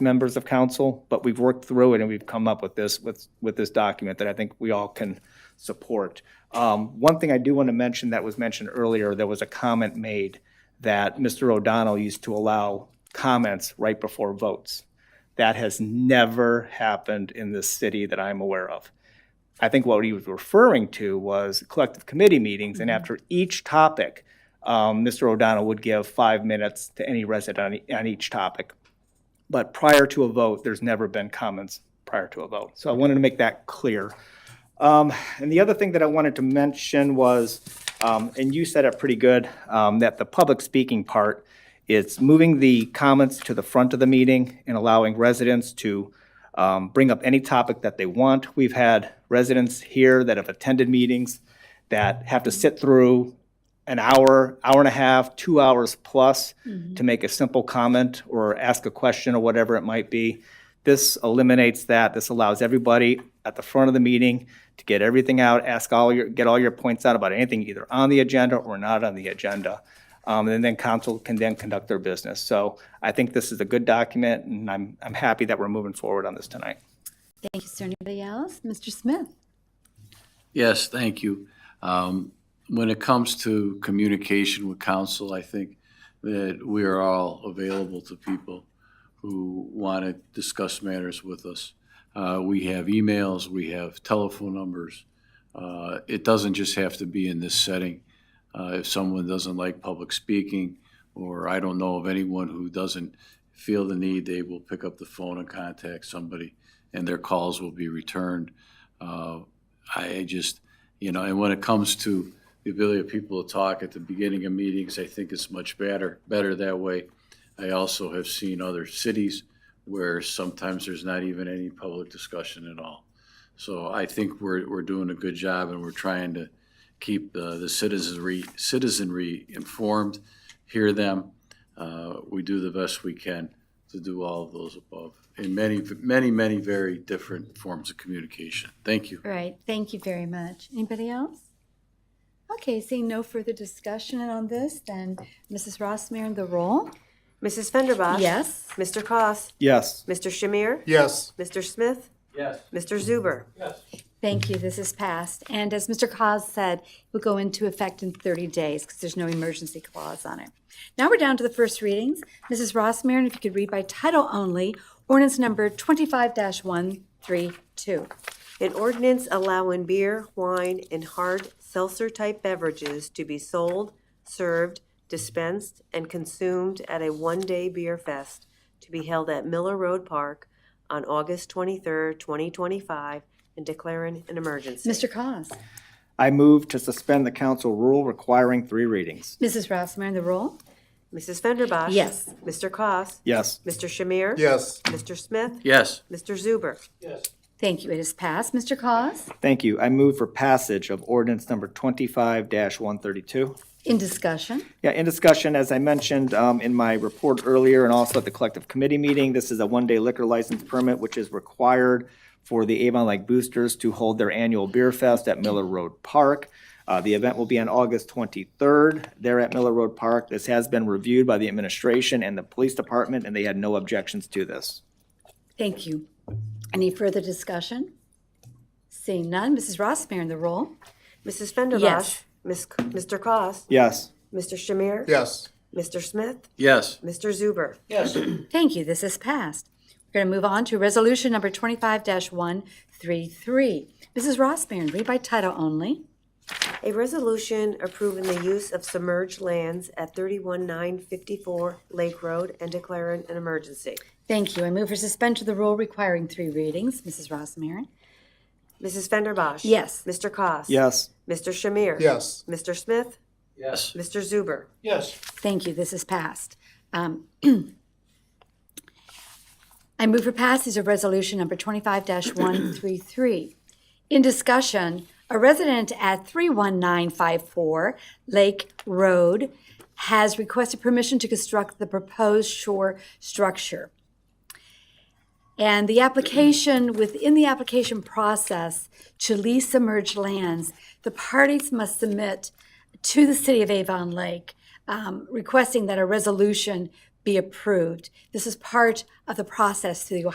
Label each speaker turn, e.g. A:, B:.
A: members of council, but we've worked through it and we've come up with this, with, with this document that I think we all can support. Um, One thing I do want to mention that was mentioned earlier, there was a comment made that Mr. O'Donnell used to allow comments right before votes. That has never happened in this city that I'm aware of. I think what he was referring to was collective committee meetings, and after each topic, um, Mr. O'Donnell would give five minutes to any resident on, on each topic. But prior to a vote, there's never been comments prior to a vote. So I wanted to make that clear. Um, and the other thing that I wanted to mention was, um, and you said it pretty good, um, that the public speaking part, it's moving the comments to the front of the meeting and allowing residents to um, bring up any topic that they want. We've had residents here that have attended meetings that have to sit through an hour, hour and a half, two hours plus to make a simple comment or ask a question or whatever it might be. This eliminates that. This allows everybody at the front of the meeting to get everything out, ask all your, get all your points out about anything either on the agenda or not on the agenda. Um, and then council can then conduct their business. So I think this is a good document and I'm, I'm happy that we're moving forward on this tonight.
B: Thank you, sir. Anybody else? Mr. Smith?
C: Yes, thank you. Um, When it comes to communication with council, I think that we are all available to people who want to discuss matters with us. Uh, We have emails, we have telephone numbers. Uh, It doesn't just have to be in this setting. Uh, If someone doesn't like public speaking, or I don't know of anyone who doesn't feel the need, they will pick up the phone and contact somebody, and their calls will be returned. Uh, I just, you know, and when it comes to the ability of people to talk at the beginning of meetings, I think it's much better, better that way. I also have seen other cities where sometimes there's not even any public discussion at all. So I think we're, we're doing a good job and we're trying to keep the, the citizenry, citizenry informed, hear them. Uh, we do the best we can to do all of those above in many, many, many very different forms of communication. Thank you.
B: Right. Thank you very much. Anybody else? Okay, seeing no further discussion on this, then Mrs. Rossmarin, the roll?
D: Mrs. Fenderbosh?
B: Yes.
D: Mr. Koss,
A: Yes.
D: Mr. Shamir?
E: Yes.
D: Mr. Smith?
C: Yes.
D: Mr. Zuber?
B: Thank you. This is passed. And as Mr. Cos said, it will go into effect in 30 days because there's no emergency clause on it. Now we're down to the first readings. Mrs. Rossmarin, if you could read by title only, ordinance number 25-132.
D: An ordinance allowing beer, wine, and hard seltzer-type beverages to be sold, served, dispensed, and consumed at a one-day beer fest to be held at Miller Road Park on August twenty-third, twenty twenty-five, and declaring an emergency.
B: Mr. Cos?
A: I move to suspend the council rule requiring three readings.
B: Mrs. Rossmarin, the roll?
D: Mrs. Fenderbosh?
B: Yes.
D: Mr. Koss,
A: Yes.
D: Mr. Shamir?
E: Yes.
D: Mr. Smith?
C: Yes,
D: Mr. Zuber?
B: Thank you. It is passed. Mr. Cos?
A: Thank you. I move for passage of ordinance number twenty-five one thirty-two.
B: In discussion?
A: Yeah, in discussion, as I mentioned um, in my report earlier and also at the collective committee meeting, this is a one-day liquor license permit, which is required for the Avon Lake Boosters to hold their annual beer fest at Miller Road Park. Uh, The event will be on August 23rd there at Miller Road Park. This has been reviewed by the administration and the police department, and they had no objections to this.
B: Thank you. Any further discussion? Seeing none, Mrs. Rossmarin, the roll.
D: Mrs. Fenderbosh?
B: Yes.
D: Miss- Mr. Koss,
A: Yes.
D: Mr. Shamir?
E: Yes.
D: Mr. Smith?
C: yes.
D: Mr. Zuber?
B: Thank you, this is passed. We're going to move on to Resolution Number 25-133. Mrs. Rossmarin, read by title only.
D: A resolution approving the use of submerged lands at 31954 Lake Road and declaring an emergency.
B: Thank you. I move for suspension of the rule requiring three readings. Mrs. Rossmarin?
D: Mrs. Fenderbosh?
B: Yes.
D: Mr. Koss,
A: Yes.
D: Mr. Shamir?
E: Yes.
D: Mr. Smith?
C: Yes.
D: Mr. Zuber?
B: Thank you, this is passed. Um, I move for passage of resolution number 25-133. In discussion, a resident at 31954 Lake Road has requested permission to construct the proposed shore structure. And the application, within the application process to lease submerged lands, the parties must submit to the City of Avon Lake um, requesting that a resolution be approved. This is part of the process through the